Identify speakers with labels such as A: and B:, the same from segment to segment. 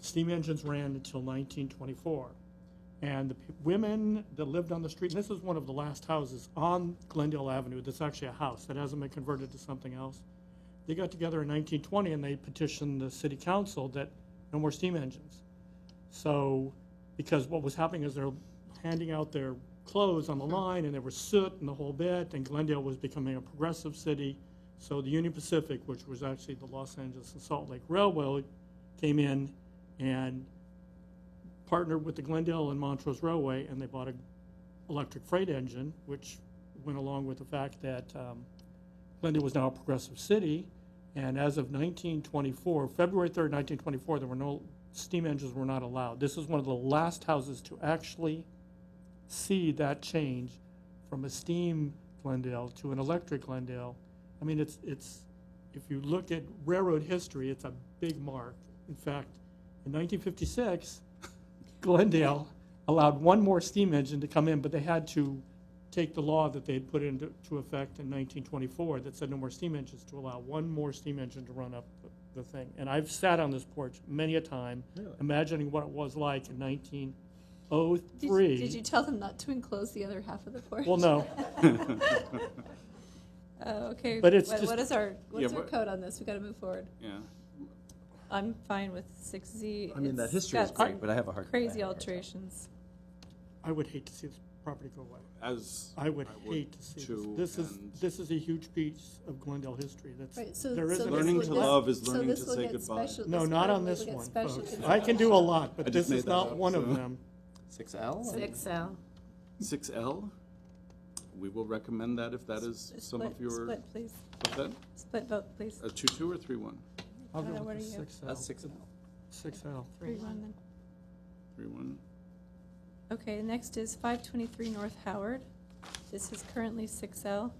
A: steam engines ran until 1924. And the p- women that lived on the street, and this is one of the last houses on Glendale Avenue, that's actually a house that hasn't been converted to something else. They got together in 1920 and they petitioned the city council that no more steam engines. So, because what was happening is they're handing out their clothes on the line, and there was soot and the whole bit, and Glendale was becoming a progressive city. So the Union Pacific, which was actually the Los Angeles and Salt Lake Railroad, came in and partnered with the Glendale and Montrose Railway, and they bought an electric freight engine, which went along with the fact that um, Glendale was now a progressive city. And as of 1924, February 3rd, 1924, there were no, steam engines were not allowed. This is one of the last houses to actually see that change from a steam Glendale to an electric Glendale. I mean, it's, it's, if you look at railroad history, it's a big mark. In fact, in 1956, Glendale allowed one more steam engine to come in, but they had to take the law that they had put into to effect in 1924 that said no more steam engines to allow one more steam engine to run up the- the thing. And I've sat on this porch many a time,
B: Really?
A: imagining what it was like in 1903.
C: Did, did you tell them not to enclose the other half of the porch?
A: Well, no.
C: Oh, okay.
A: But it's
C: What-
A: just-
C: what is our what's
D: Yeah,
C: our
D: but-
C: code on this? We got to move forward.
D: Yeah.
C: I'm fine with six Z.
B: I mean, that history is great, but I have a hard. I have
C: crazy
B: a hard time.
C: alterations.
A: I would hate to see this property go away.
D: As
A: I would hate to see
D: too,
A: this. This is,
D: and-
A: this is a huge piece of Glendale history.
C: Right.
A: That's,
C: So
A: there
C: so
A: isn't.
C: this
D: Learning
C: would-
D: to
C: this-
D: love is
C: so
D: learning
C: this
D: to
C: will
D: say
C: get
D: goodbye.
C: special-
A: No, not
C: code
A: on
C: will
A: this
C: get
A: one,
C: special
A: folks.
C: consideration.
A: I can do a lot,
D: I
A: but
D: just
A: this is
D: made that
A: not
D: up,
A: one of
D: so.
A: them.
B: Six L?
E: Six L.
D: Six L, we will recommend that if that is
C: Split-
D: some of your,
C: Split, please.
D: what's that?
C: Split vote, please.
D: A two-two or three-one?
A: I'll
C: Donna,
A: go
C: what
A: with the
C: are you?
A: six L,
B: That's six L.
A: six L.
C: Three, one, then.
D: Three-one.
C: Okay, the next is five twenty-three North Howard. This is currently six L.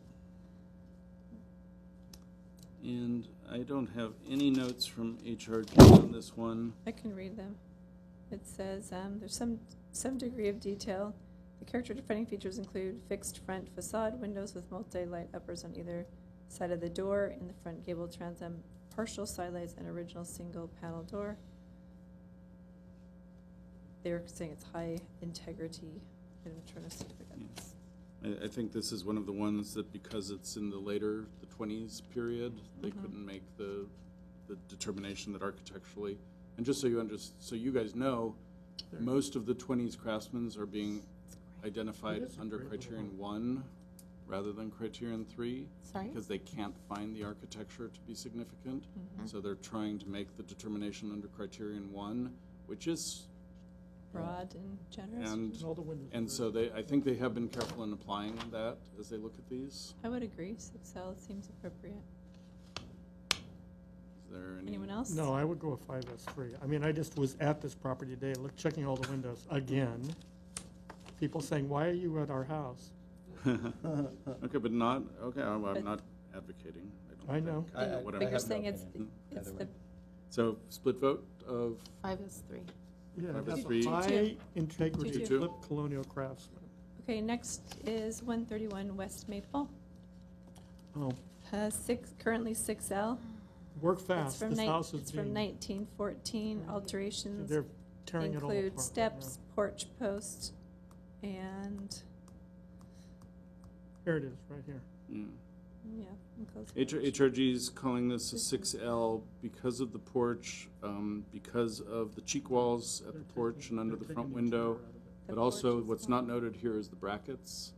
D: And I don't have any notes from HRG on this one.
C: I can read them. It says, um, there's some, some degree of detail. The character defining features include fixed front facade windows with multi-light uppers on either side of the door in the front gable transom, partial side lights, and original single panel door. They're saying it's high integrity. I'm trying to see if I got this.
D: I, I think this is one of the ones that because it's in the later, the twenties period, they
A: Mm-hmm.
D: couldn't make the, the determination that architecturally, and just so you under, so you guys know, most of the twenties craftsmen are being identified
A: It is a
D: under
A: great little
D: criterion one rather than criterion three.
E: Sorry?
D: Because they can't find the architecture to be significant,
A: Mm-hmm.
D: so they're trying to make the determination under criterion one, which is,
C: Broad and generous.
D: and
A: All the windows.
D: and so they, I think they have been careful in applying that as they look at these.
C: I would agree, six L seems appropriate.
D: Is there any?
C: Anyone else?
A: No, I would go with five S three. I mean, I just was at this property today, look, checking all the windows again. People saying, why are you at our house?
D: Okay, but not, okay, I'm, I'm
C: But-
D: not advocating. don't
A: I
D: think.
A: know.
B: I- I-
C: But
D: What I
C: you're
D: have,
C: saying
B: no
C: it's,
B: opinion
C: it's
B: either
C: the,
D: so split vote of,
E: Five is three.
A: Yeah,
D: Five S
A: that's
D: three.
A: high integrity,
D: Two-two.
A: flip colonial craftsman.
C: okay, next is one thirty-one West Maple.
A: Oh,
C: Uh, six, currently six L.
A: work
C: It's
A: fast.
C: from
A: This
C: nine,
A: house
C: it's
A: is
C: from
A: being,
C: nineteen fourteen. Alterations
A: they're tearing it all apart. right
C: include
A: now.
C: steps, porch post, and,
A: Here it is, right here.
D: yeah.
C: yeah, enclosed
D: mm, H-
C: porch.
D: HRG's calling this a six L because of the porch, um, because of the cheek walls at the porch and under the front window.
C: The
D: But also,
C: porch is
D: what's
C: gone.
D: not noted here is the brackets.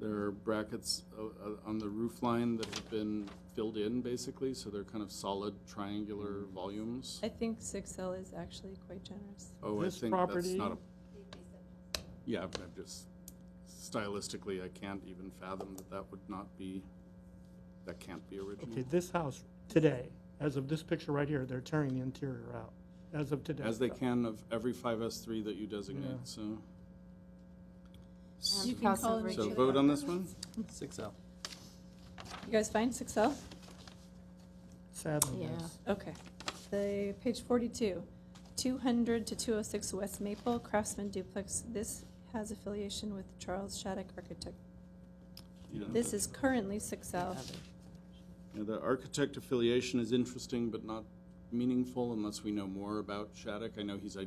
D: There are brackets uh, uh, on the roof line that have been filled in, basically, so they're kind of solid triangular volumes.
C: I think six L is actually quite generous.
D: Oh, I
A: This
D: think that's
A: property-
D: not a. Yeah, I'm I'm just, stylistically, I can't even fathom that that would not be, that can't be original.
A: Okay, this house today, as of this picture right here, they're tearing the interior out, as of today.
D: As they can of every five S three that you designate,
A: Yeah.
D: so.
E: And
C: You can call
E: crossover
C: it
D: So
E: each
D: vote
E: other.
D: on this one?
B: Six L.
C: You guys find six L?
A: Sadly,
E: Yeah.
A: yes.
C: Okay. The, page forty-two, two hundred to two oh six West Maple Craftsman Duplex. This has affiliation with Charles Shattuck Architect.
D: You don't-
C: This is currently six L.
D: Yeah, The architect affiliation is interesting, but not meaningful unless we know more about Shattuck. I know he's